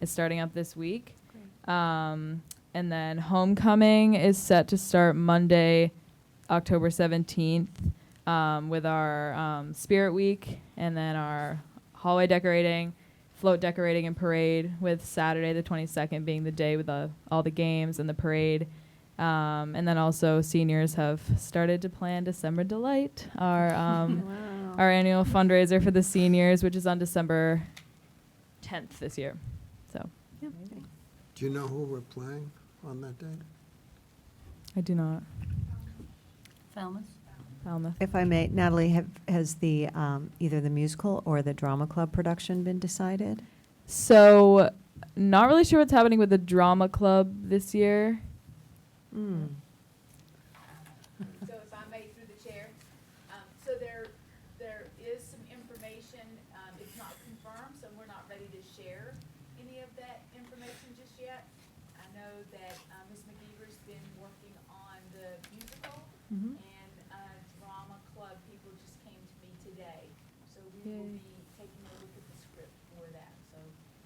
is starting up this week. Um, and then Homecoming is set to start Monday, October 17th, um, with our um, Spirit Week and then our hallway decorating, float decorating, and parade, with Saturday the 22nd being the day with the, all the games and the parade. Um, and then also, seniors have started to plan December Delight, our um, Wow. our annual fundraiser for the seniors, which is on December 10th this year. So Do you know who we're playing on that day? I do not. Falmouth? Falmouth. If I may, Natalie, have, has the, um, either the musical or the drama club production been decided? So, not really sure what's happening with the drama club this year. Hmm. So if I may through the chair, um, so there, there is some information, um, it's not confirmed, so we're not ready to share any of that information just yet. I know that, uh Ms. McGeever's been working on the musical Mhm. Mm-hmm. and, uh, drama club people just came to me today. So we will Yay. be taking a look at the script for that, so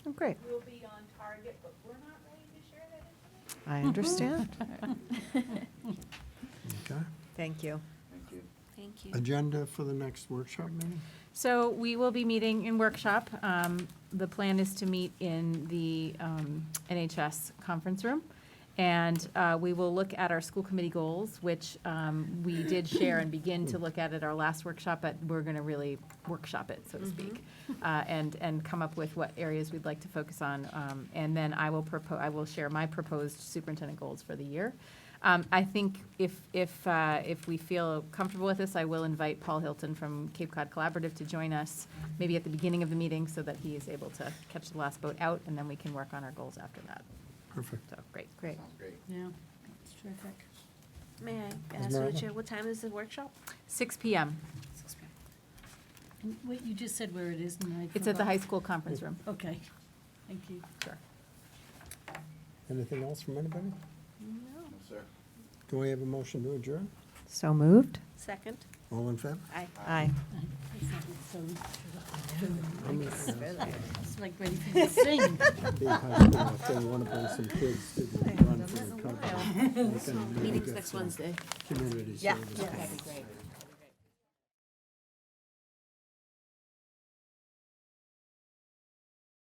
Oh, great. we'll be on target, but we're not ready to share that information. I understand. Okay. Thank you. Thank you. Agenda for the next workshop meeting? So we will be meeting in workshop. Um, The plan is to meet in the um, NHS conference room. And uh, we will look at our school committee goals, which um, we did share and begin to look at at our last workshop, but we're going to really workshop it, so to speak, uh, and, and come up with what areas we'd like to focus on. Um, And then I will propose, I will share my proposed superintendent goals for the year. Um, I think if, if, uh, if we feel comfortable with this, I will invite Paul Hilton from Cape Cod Collaborative to join us, maybe at the beginning of the meeting, so that he is able to catch the last boat out, and then we can work on our goals after that. Perfect. So, great. Great. Yeah, it's terrific. May I Ms. ask you, Maribel? Chair, what time is the workshop? Six PM. And Wait, you just said where it is, and I. It's at the forgot. high school conference room. Okay, thank you. Sure. Anything else from anybody? No. Do we have a motion to adjourn? So moved? Second? All in favor? Aye. Aye. It's like it's so- Be It's like ready for me to sing. high school, If they want to bring some kids to the run for the company. Meetings next Wednesday. Community service. Yeah. That'd be great.